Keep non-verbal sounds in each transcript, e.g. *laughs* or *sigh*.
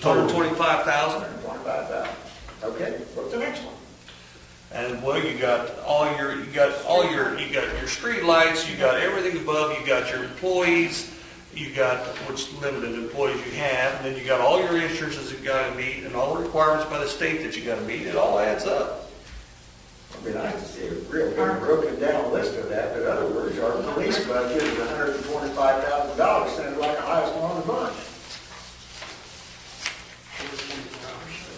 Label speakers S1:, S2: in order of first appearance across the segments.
S1: Hundred twenty-five thousand,
S2: Twenty-five thousand. Okay, what's the next one?
S1: and well, you got all your, you got all your, you got your street lights. you got everything above, you got your employees, you got which limited employees you have, and then you got all your insurances you gotta meet, and all the requirements by the state that you gotta meet, it all adds up.
S2: It'd be nice to see a real good broken down list of that, but in other words, our police budget is hundred and twenty-five thousand dollars, sounded like the highest one on the bunch.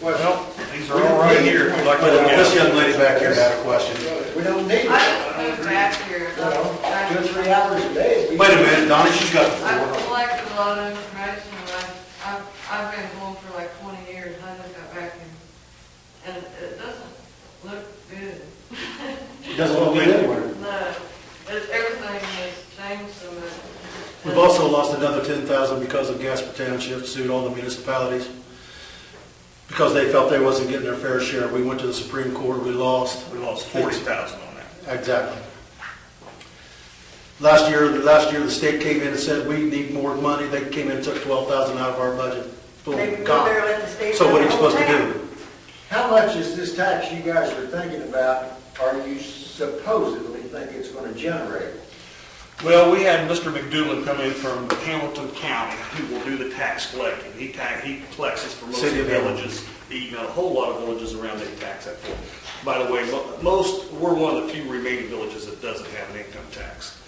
S1: Well, these are all right here. like-
S3: But uh, this young lady back here had a question.
S2: We don't need it.
S4: I just moved back here.
S2: You know, two, or three hours a day. we-
S3: Wait a minute, Donna, she's got the
S4: I've
S3: floor.
S4: collected a lot of information, and I- I've, I've been home for like twenty years, and I just got back here. And it doesn't look good. *laughs*
S3: She doesn't want to be anywhere.
S4: No, it- everything has changed so much.
S3: We've also lost another ten thousand because of Gasper Township sued all the municipalities because they felt they wasn't getting their fair share. We went to the Supreme Court, we lost.
S1: We lost forty thousand on that.
S3: Exactly. Last year, last year, the state came in and said, we need more money. They came in and took twelve thousand out of our budget. Boom,
S5: They were
S3: gone.
S5: there at the state
S3: So what are you
S5: level.
S3: supposed to do?
S2: How much is this tax you guys are thinking about, are you supposedly think it's gonna generate?
S1: Well, we had Mr. McDougal come in from Hamilton County, who will do the tax collecting. He tax, he collects it for most
S3: City of Hamilton.
S1: villages. He, got a whole lot of villages around that he tax that for. By the way, mo- most, we're one of the few remaining villages that doesn't have an income tax.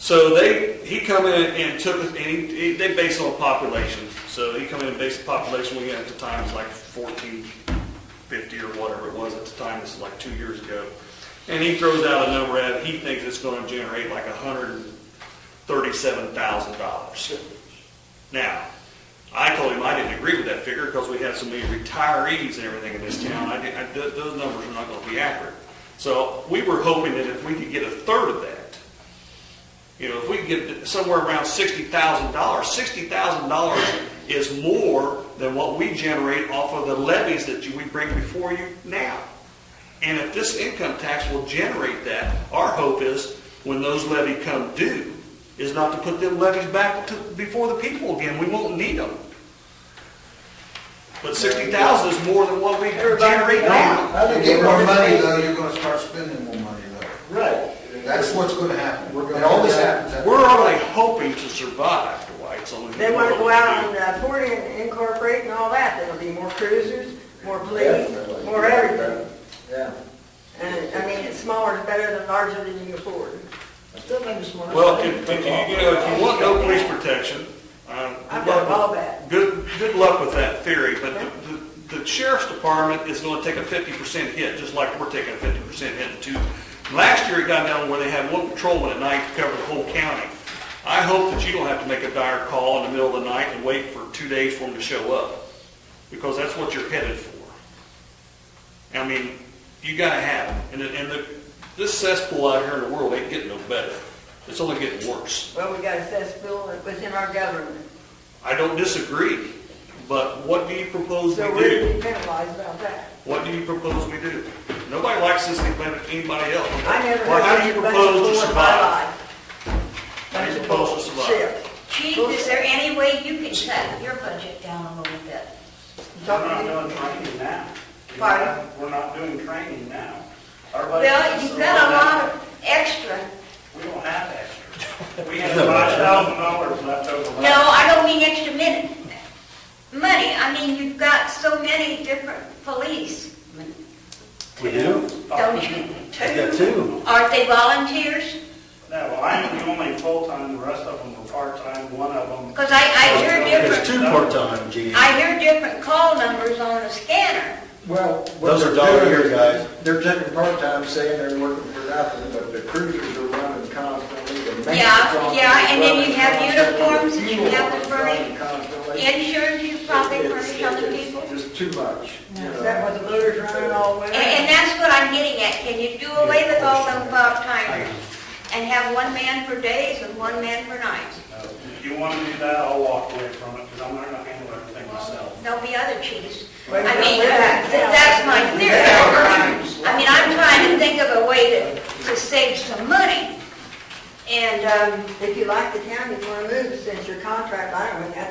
S1: So they, he come in and took, and he, he- they base it on population. So he come in and based the population we had at the time was like fourteen fifty or whatever it was at the time, this is like two years ago. And he throws out a number at, it. he thinks it's gonna generate like hundred and thirty-seven thousand dollars. Now, I told him I didn't agree with that figure because we have so many retirees and everything in this town. I didn't, I, th- those numbers are not gonna be accurate. So we were hoping that if we could get a third of that, you know, if we get somewhere around sixty thousand dollars, sixty thousand dollars is more than what we generate off of the levies that you, we bring before you now. And if this income tax will generate that, our hope is when those levy come due, is not to put them levies back to, before the people again. We won't need them. But sixty thousand is more than what we generate now.
S2: I
S6: You
S2: think
S6: get more money
S2: everybody-
S6: though, you're gonna start spending more money though.
S2: Right.
S6: That's what's gonna happen.
S2: We're gonna-
S6: It always happens.
S1: We're only hoping to survive, Dwight, so. we-
S5: They want to go out and uh, port and incorporate and all that, there'll be more cruisers, more police,
S2: Definitely.
S5: more everything.
S2: Yeah.
S5: And, I mean, smaller is better than larger than you can afford.
S2: I still think it's one of-
S1: Well, if, if you, you know, if you want no police protection, um,
S5: I've
S1: good luck
S5: got it all
S1: with-
S5: back.
S1: Good, good luck with that theory, but the, the- the sheriff's department is gonna take a fifty percent hit, just like we're taking a fifty percent hit too. Last year, it got down where they had one patrolman at night to cover the whole county. I hope that you don't have to make a dire call in the middle of the night and wait for two days for them to show up, because that's what you're headed for. I mean, you gotta have it, and, it- and the, this cesspool out here in the world ain't getting no better, it's only getting worse.
S5: Well, we got a cesspool within our government,
S1: I don't disagree, but what do you propose we
S5: so we're
S1: do?
S5: to be penalized about that.
S1: What do you propose we do? Nobody likes this thing better than anybody else.
S5: I never
S1: Well, how
S5: had
S1: do you
S5: any budget
S1: propose to
S5: in my
S1: survive?
S5: life.
S1: How do you propose to survive?
S5: Shit.
S7: Chief, is there any way you can cut your budget down a little bit?
S8: We're
S5: Talking
S8: not
S5: to-
S8: doing training now. We're
S5: Pardon?
S8: not- We're not doing training now. Everybody
S7: Well,
S8: else is
S7: you've got a
S8: doing
S7: lot
S8: that.
S7: of extra.
S8: We don't have extra. We have five thousand dollars left over.
S7: No, I don't mean extra minute, money. I mean, you've got so many different police.
S3: We do?
S7: Don't you?
S3: We got two.
S7: Aren't they volunteers?
S8: No, well, I'm the only full-time, the rest of them are part-time, one of them.
S7: Because I, I hear
S3: There's
S7: different,
S3: two part-time, Gene.
S7: I hear different call numbers on the scanner.
S2: Well. what
S3: Those are
S2: they're
S3: dollar a
S2: doing
S3: year
S2: is
S3: guys.
S2: They're taking part-time, saying they're working for nothing, but the cruisers are running constantly, the maintenance.
S7: Yeah,
S2: on
S7: yeah,
S2: them
S7: and then
S2: is
S7: you
S2: running
S7: have
S2: constantly, the
S7: uniforms that you
S2: fuel
S7: have to
S2: is
S7: bring.
S2: running constantly.
S7: Insurance, you probably
S2: It's-
S7: furnish other
S2: it's
S7: people.
S2: Just too much, you
S5: Is
S2: know.
S5: that what the looters running all winter?
S7: And, and that's what I'm getting at, can you do away with all them part-timers? And have one man for days and one man for nights?
S8: If you want to do that, I'll walk away from it, because I'm not gonna handle everything myself.
S7: There'll be other chiefs.
S5: Well,
S7: I mean,
S5: we're
S7: that-
S5: back now.
S7: that's my theory. I mean, I'm trying to think of a way to, to save some money. And, um,
S5: Um, If you like the town, you want to move, since your contract, I don't know, that's